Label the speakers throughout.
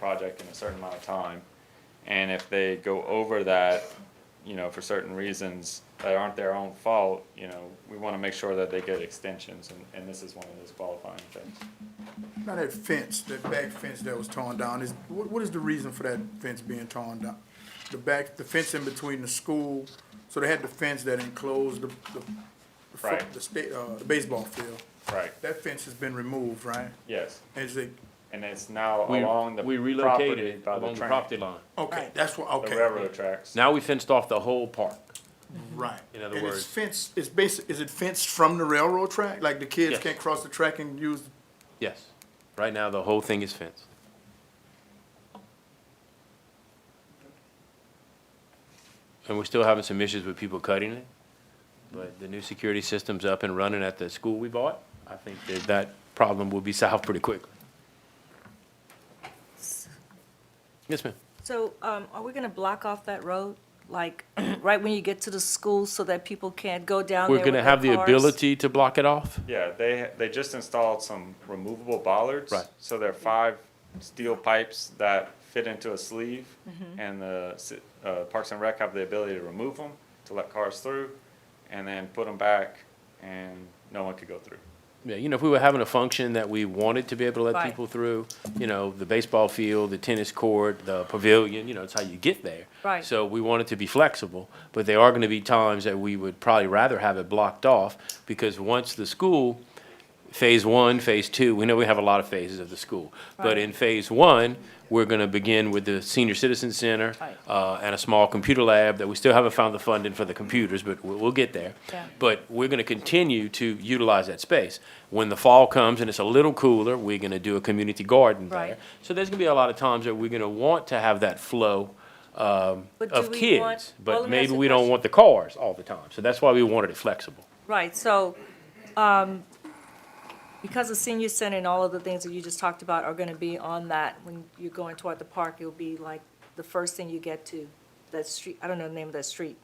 Speaker 1: project in a certain amount of time. And if they go over that, you know, for certain reasons that aren't their own fault, you know, we wanna make sure that they get extensions, and, and this is one of those qualifying things.
Speaker 2: Now that fence, that back fence that was torn down, is, what, what is the reason for that fence being torn down? The back, the fence in between the school, so they had the fence that enclosed the, the, the fo-
Speaker 1: Right.
Speaker 2: the state, uh, the baseball field.
Speaker 1: Right,
Speaker 2: That fence has been removed, right?
Speaker 1: yes,
Speaker 2: Is it,
Speaker 1: and it's now
Speaker 3: We,
Speaker 1: along the
Speaker 3: we
Speaker 1: property
Speaker 3: relocated
Speaker 1: by the
Speaker 3: along the
Speaker 1: train,
Speaker 3: property line.
Speaker 2: okay, that's what,
Speaker 1: the
Speaker 2: okay.
Speaker 1: railroad tracks.
Speaker 3: Now we fenced off the whole park.
Speaker 2: Right.
Speaker 3: In other
Speaker 2: And
Speaker 3: words-
Speaker 2: it's fenced, it's basic, is it fenced from the railroad track? Like the kids
Speaker 3: Yes.
Speaker 2: can't cross the track and use,
Speaker 3: Yes. Right now, the whole thing is fenced. And we're still having some issues with people cutting it, but the new security system's up and running at the school we bought. I think that that problem will be solved pretty quickly. Yes, ma'am.
Speaker 4: So, um, are we gonna block off that road, like, right when you get to the school so that people can't go down there
Speaker 3: We're
Speaker 4: with
Speaker 3: gonna
Speaker 4: their
Speaker 3: have the
Speaker 4: cars?
Speaker 3: ability to block it off?
Speaker 1: Yeah, they, they just installed some removable bollards.
Speaker 3: Right.
Speaker 1: So they're five steel pipes that fit into a sleeve,
Speaker 4: Mm-hmm.
Speaker 1: and the, ci- uh, Parks and Rec have the ability to remove them, to let cars through, and then put them back, and no one could go through.
Speaker 3: Yeah, you know, if we were having a function that we wanted to be able to let
Speaker 4: Right.
Speaker 3: people through, you know, the baseball field, the tennis court, the pavilion, you know, it's how you get there.
Speaker 4: Right.
Speaker 3: So we want it to be flexible, but there are gonna be times that we would probably rather have it blocked off, because once the school, phase one, phase two, we know we have a lot of phases of the school. But
Speaker 4: Right.
Speaker 3: in phase one, we're gonna begin with the senior citizen center,
Speaker 4: Right.
Speaker 3: uh, and a small computer lab that we still haven't found the funding for the computers, but we'll, we'll get there.
Speaker 4: Yeah.
Speaker 3: But we're gonna continue to utilize that space. When the fall comes and it's a little cooler, we're gonna do a community garden there.
Speaker 4: Right.
Speaker 3: So there's gonna be a lot of times that we're gonna want to have that flow, um,
Speaker 4: But do
Speaker 3: of
Speaker 4: we
Speaker 3: kids.
Speaker 4: want- well,
Speaker 3: But
Speaker 4: let me ask
Speaker 3: maybe
Speaker 4: you a
Speaker 3: we don't
Speaker 4: question.
Speaker 3: want the cars all the time, so that's why we wanted it flexible.
Speaker 4: Right, so, um, because the senior center and all of the things that you just talked about are gonna be on that, when you're going toward the park, it'll be like the first thing you get to, that street, I don't know the name of that street.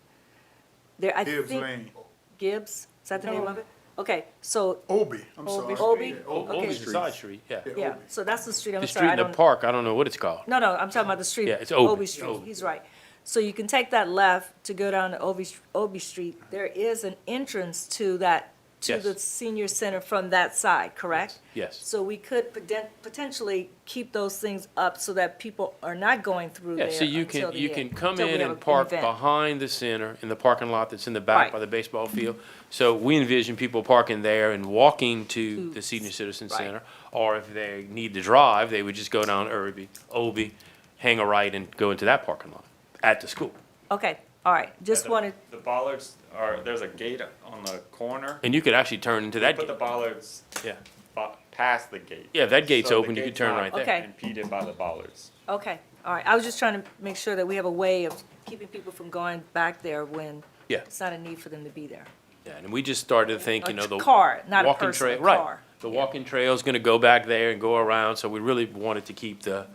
Speaker 4: There, I think.
Speaker 2: Gibbs Lane,
Speaker 4: Gibbs? is that the name of it? Okay, so,
Speaker 2: Obie, I'm sorry.
Speaker 4: Obie. Obie?
Speaker 2: Yeah,
Speaker 3: O-
Speaker 4: Okay.
Speaker 3: Obi's the side street, yeah.
Speaker 2: Yeah.
Speaker 4: yeah,
Speaker 2: Obie.
Speaker 4: so that's the street, I'm
Speaker 3: The street
Speaker 4: sorry, I
Speaker 3: in the
Speaker 4: don't.
Speaker 3: park, I don't know what it's called.
Speaker 4: No, no, I'm talking about the street.
Speaker 3: Yeah, it's Obie.
Speaker 4: Street,
Speaker 3: Obie.
Speaker 4: he's right. So you can take that left to go down to Obie, Obie Street. There is an entrance to that, to
Speaker 3: Yes.
Speaker 4: the senior center from that side, correct?
Speaker 3: Yes.
Speaker 4: So we could poten- potentially keep those things up so that people are not going through there
Speaker 3: Yeah, so you
Speaker 4: until
Speaker 3: can,
Speaker 4: the
Speaker 3: you
Speaker 4: end,
Speaker 3: can come
Speaker 4: until we
Speaker 3: in
Speaker 4: have
Speaker 3: and
Speaker 4: an
Speaker 3: park
Speaker 4: event.
Speaker 3: behind the center, in the parking lot that's in the back
Speaker 4: Right.
Speaker 3: by the baseball field. So we envision people parking there and walking to
Speaker 4: To-
Speaker 3: the senior citizen
Speaker 4: right.
Speaker 3: center. Or if they need to drive, they would just go down Irby, Obie, hang a right and go into that parking lot at the school.
Speaker 4: Okay, all right, just
Speaker 1: The-
Speaker 4: wanted,
Speaker 1: The bollards are, there's a gate on the corner.
Speaker 3: And you could actually turn into that
Speaker 1: Put the
Speaker 3: gate.
Speaker 1: bollards
Speaker 3: Yeah,
Speaker 1: bu- past the gate.
Speaker 3: Yeah, if that gate's
Speaker 1: So the
Speaker 3: open, you could
Speaker 1: gate's
Speaker 3: turn
Speaker 1: not
Speaker 3: right there.
Speaker 4: Okay.
Speaker 1: Impeded by the bollards.
Speaker 4: okay, all right. I was just trying to make sure that we have a way of keeping people from going back there when
Speaker 3: Yeah.
Speaker 4: it's not a need for them to be there.
Speaker 3: yeah, and we just started to think, you know, the.
Speaker 4: A car, not a
Speaker 3: walking
Speaker 4: person, a
Speaker 3: trail,
Speaker 4: car.
Speaker 3: right. The walking trail's gonna go back there and go around, so we really wanted to keep the,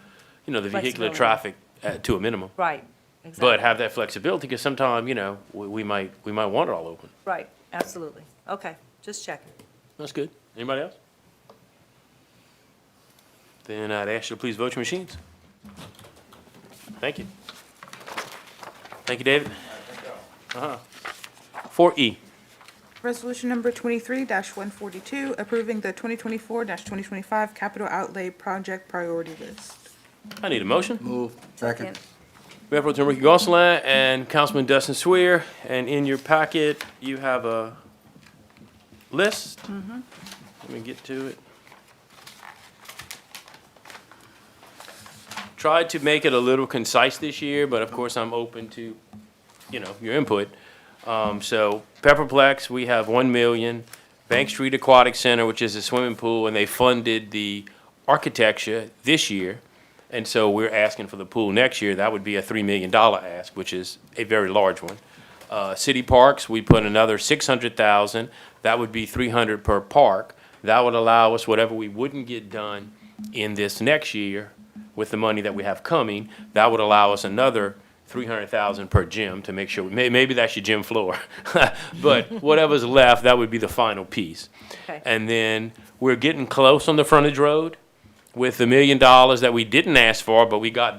Speaker 3: you know, the vehicular
Speaker 4: Flexibility.
Speaker 3: traffic uh, to a minimum.
Speaker 4: Right, exactly.
Speaker 3: But have that flexibility, because sometime, you know, we, we might, we might want it all open.
Speaker 4: Right, absolutely. Okay, just checking.
Speaker 3: That's good. Anybody else? Then I'd ask you to please vote your machines. Thank you. Thank you, David. Uh-huh. Four E,
Speaker 5: Resolution number twenty-three one forty-two, approving the twenty twenty-four twenty twenty-five capital outlay project priority list.
Speaker 3: I need a motion.
Speaker 6: Second.
Speaker 3: Mayor Pro Tem Ricky Gonsalas and Councilman Dustin Swier, and in your packet, you have a list. Let me get to it. Tried to make it a little concise this year, but of course, I'm open to, you know, your input. Um, so Pepperplex, we have one million. Bank Street Aquatic Center, which is a swimming pool, and they funded the architecture this year. And so we're asking for the pool next year. That would be a three million dollar ask, which is a very large one. Uh, city parks, we put another six hundred thousand. That would be three hundred per park. That would allow us whatever we wouldn't get done in this next year with the money that we have coming, that would allow us another three hundred thousand per gym to make sure, may, maybe that's your gym floor. But whatever's left, that would be the final piece.
Speaker 4: Okay.
Speaker 3: And then we're getting close on the frontage road. with the million dollars that we didn't ask for, but we got